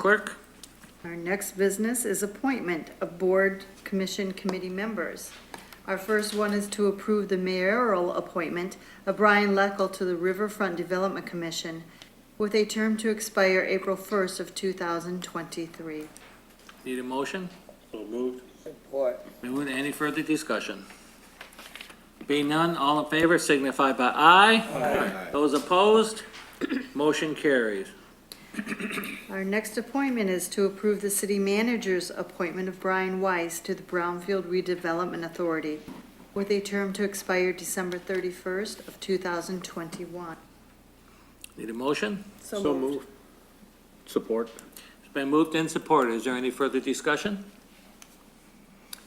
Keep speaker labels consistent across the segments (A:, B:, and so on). A: Clerk.
B: Our next business is appointment of board commission committee members. Our first one is to approve the mayoral appointment of Brian Leckel to the Riverfront Development Commission with a term to expire April 1st of 2023.
A: Need a motion?
C: So moved.
D: Support.
A: Anyone, any further discussion? Being none, all in favor signify by aye. Those opposed, motion carries.
B: Our next appointment is to approve the city manager's appointment of Brian Weiss to the Brownfield Redevelopment Authority with a term to expire December 31st of 2021.
A: Need a motion?
C: So moved. Support.
A: It's been moved and supported. Is there any further discussion?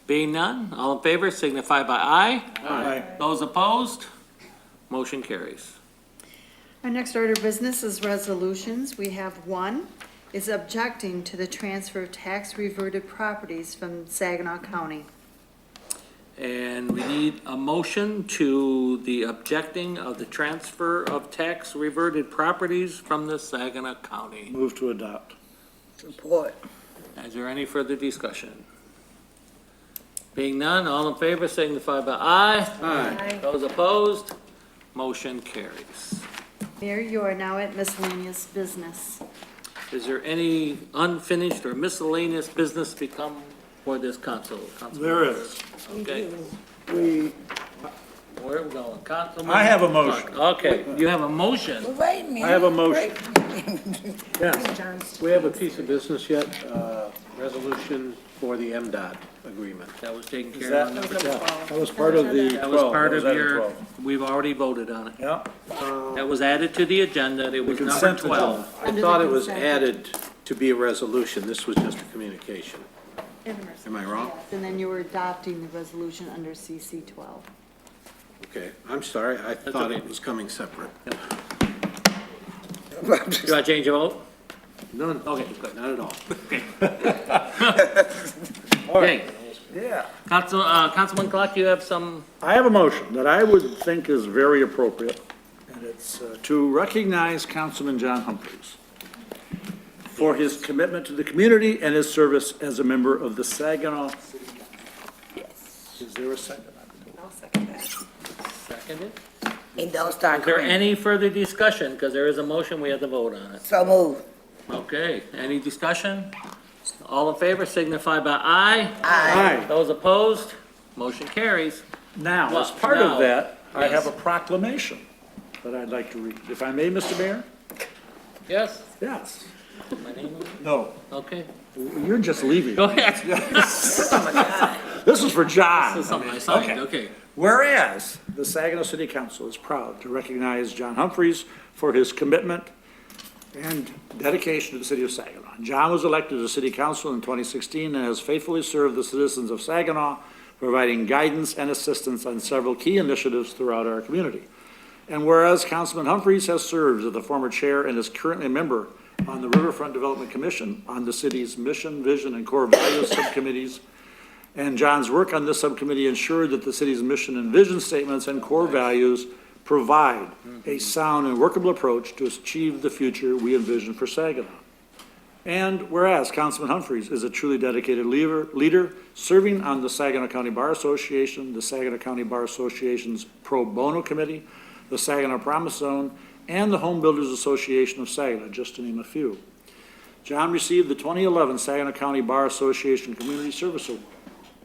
A: Being none, all in favor signify by aye.
C: Aye.
A: Those opposed, motion carries.
B: Our next order of business is resolutions. We have one is objecting to the transfer of tax reverted properties from Saginaw County.
A: And we need a motion to the objecting of the transfer of tax reverted properties from the Saginaw County.
C: Move to adopt.
D: Support.
A: Is there any further discussion? Being none, all in favor signify by aye.
B: Aye.
A: Those opposed, motion carries.
B: Mayor, you are now at miscellaneous business.
A: Is there any unfinished or miscellaneous business become for this council? Councilman
C: There
A: Burr?
C: is.
A: Okay,
D: We,
A: where are we going? Councilman?
C: I have a motion.
A: Clark. Okay, you have a motion.
D: wait a minute.
C: I have a motion.
E: We have a piece of business yet, uh, resolution for the MDOT agreement.
A: That was taken care of.
C: that-
E: That was part of the
A: That was
C: 12,
A: part
C: that
A: of
C: was item
A: your,
C: 12.
A: we've already voted on it.
C: Yeah,
A: That was added to the agenda. It was number
C: consent agenda.
A: 12.
E: I thought it was added to be a resolution, this was just a communication. Am I wrong?
B: And then you were adopting the resolution under CC 12.
E: Okay, I'm sorry, I thought
A: okay.
E: it was coming separate.
A: Do I change your vote?
E: None,
A: Okay, good.
E: not at all.
A: Okay.
C: yeah.
A: Council, uh, Councilman Clark, you have some,
C: I have a motion that I would think is very appropriate, and it's uh, to recognize Councilman John Humphreys for his commitment to the community and his service as a member of the Saginaw City Council. Is there a second?
A: seconded?
D: And don't start
A: Is there
D: crying.
A: any further discussion? Because there is a motion, we have to vote on it.
D: So moved.
A: Okay, any discussion? All in favor signify by aye.
C: Aye.
A: Those opposed, motion carries.
C: Now, as
A: Well,
C: part
A: now-
C: of that, I have a
A: Yes.
C: proclamation that I'd like to read, if I may, Mr. Mayor?
A: Yes?
C: Yes.
A: My name on it?
C: No,
A: Okay,
C: you're just leaving.
A: go ahead.
C: This is for John.
A: This is something I signed,
C: Okay.
A: okay.
C: Whereas the Saginaw City Council is proud to recognize John Humphreys for his commitment and dedication to the city of Saginaw. John was elected to city council in 2016 and has faithfully served the citizens of Saginaw, providing guidance and assistance on several key initiatives throughout our community. And whereas Councilman Humphreys has served as the former chair and is currently a member on the Riverfront Development Commission on the city's mission, vision, and core values subcommittees, and John's work on this subcommittee ensured that the city's mission and vision statements and core values provide a sound and workable approach to achieve the future we envision for Saginaw. And whereas Councilman Humphreys is a truly dedicated leader, leader, serving on the Saginaw County Bar Association, the Saginaw County Bar Association's Pro Bono Committee, the Saginaw Promise Zone, and the Home Builders Association of Saginaw, just to name a few. John received the 2011 Saginaw County Bar Association Community Service Award.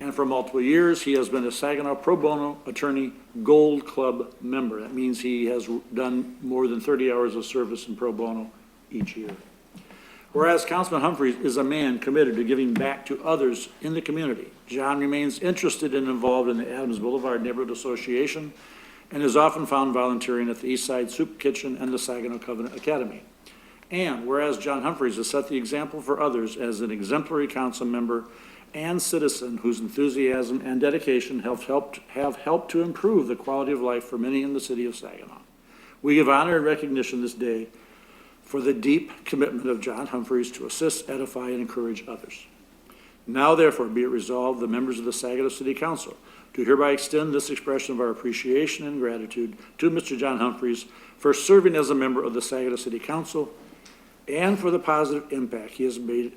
C: And for multiple years, he has been a Saginaw Pro Bono Attorney Gold Club member. That means he has done more than 30 hours of service in pro bono each year. Whereas Councilman Humphreys is a man committed to giving back to others in the community, John remains interested and involved in the Adams Boulevard Neighborhood Association and is often found volunteering at the East Side Soup Kitchen and the Saginaw Covenant Academy. And whereas John Humphreys has set the example for others as an exemplary council member and citizen whose enthusiasm and dedication have helped, have helped to improve the quality of life for many in the city of Saginaw. We give honor and recognition this day for the deep commitment of John Humphreys to assist, edify, and encourage others. Now therefore be it resolved, the members of the Saginaw City Council do hereby extend this expression of our appreciation and gratitude to Mr. John Humphreys for serving as a member of the Saginaw City Council and for the positive impact he has made